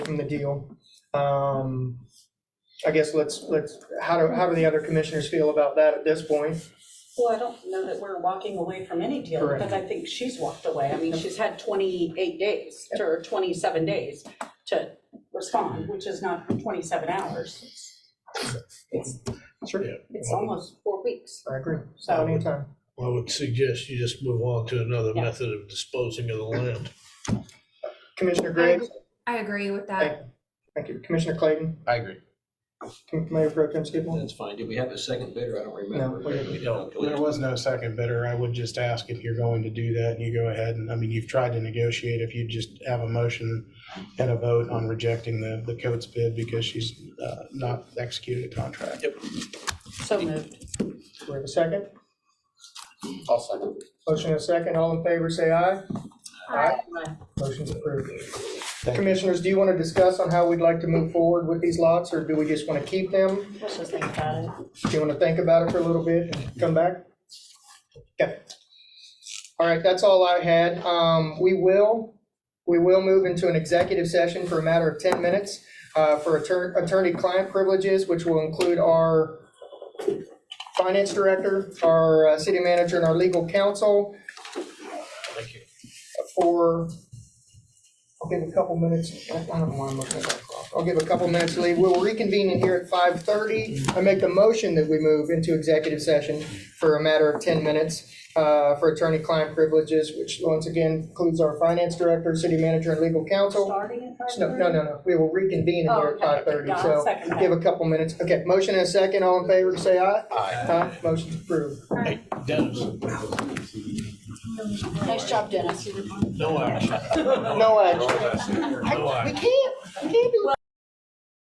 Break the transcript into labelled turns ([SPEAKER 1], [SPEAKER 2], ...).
[SPEAKER 1] from the deal. Um, I guess let's, let's, how do, how do the other commissioners feel about that at this point?
[SPEAKER 2] Well, I don't know that we're walking away from any deal,
[SPEAKER 1] Correct.
[SPEAKER 2] because I think she's walked away. I mean, she's had 28 days, or 27 days to respond, which is not 27 hours. It's,
[SPEAKER 1] Sure,
[SPEAKER 2] it's almost four weeks,
[SPEAKER 1] I agree.
[SPEAKER 2] so.
[SPEAKER 1] Anytime.
[SPEAKER 3] I would suggest you just move on to another
[SPEAKER 2] Yeah.
[SPEAKER 3] method of disposing of the land.
[SPEAKER 1] Commissioner Graves,
[SPEAKER 4] I agree with
[SPEAKER 1] thank,
[SPEAKER 4] that.
[SPEAKER 1] thank you. Commissioner Clayton,
[SPEAKER 5] I agree.
[SPEAKER 1] Com- Mayor Pro Tem Skipwell?
[SPEAKER 6] That's fine. Did we have a second bidder? I don't remember.
[SPEAKER 1] No, we didn't.
[SPEAKER 6] Okay, we-
[SPEAKER 5] There was no second bidder. I would just ask if you're going to do that, you go ahead and, I mean, you've tried to negotiate, if you just have a motion and a vote on rejecting the, the Coates bid because she's uh, not executed a contract.
[SPEAKER 2] So moved.
[SPEAKER 1] We have a second?
[SPEAKER 6] I'll second.
[SPEAKER 1] Motion and a second. All in favor, say aye.
[SPEAKER 2] Aye.
[SPEAKER 1] Motion's approved.
[SPEAKER 5] Thank you.
[SPEAKER 1] Commissioners, do you want to discuss on how we'd like to move forward with these lots, or do we just want to keep them?
[SPEAKER 2] Let's just think about it.
[SPEAKER 1] Do you want to think about it for a little bit and come back? Okay. All right, that's all I had. Um, we will, we will move into an executive session for a matter of ten minutes, uh, for attorney, attorney-client privileges, which will include our finance director, our uh, city manager, and our legal counsel
[SPEAKER 3] Thank you.
[SPEAKER 1] for, I'll give a couple minutes, I don't know why I'm looking at that clock. I'll give a couple minutes leave. We'll reconvene in here at five thirty. I make the motion that we move into executive session for a matter of ten minutes uh, for attorney-client privileges, which once again includes our finance director, city manager, and legal counsel.
[SPEAKER 2] Starting at
[SPEAKER 1] No, no, no, no, we will reconvene in here at
[SPEAKER 2] Oh, okay.
[SPEAKER 1] five thirty,
[SPEAKER 2] I'll
[SPEAKER 1] so
[SPEAKER 2] second that.
[SPEAKER 1] give a couple minutes. Okay, motion and a second, all in favor, say aye. Aye. Motion's approved.
[SPEAKER 3] Hey, Dennis,
[SPEAKER 2] Nice job, Dennis.
[SPEAKER 3] no action,
[SPEAKER 1] No action.
[SPEAKER 3] no
[SPEAKER 1] I- We
[SPEAKER 3] action.
[SPEAKER 1] can't, we can't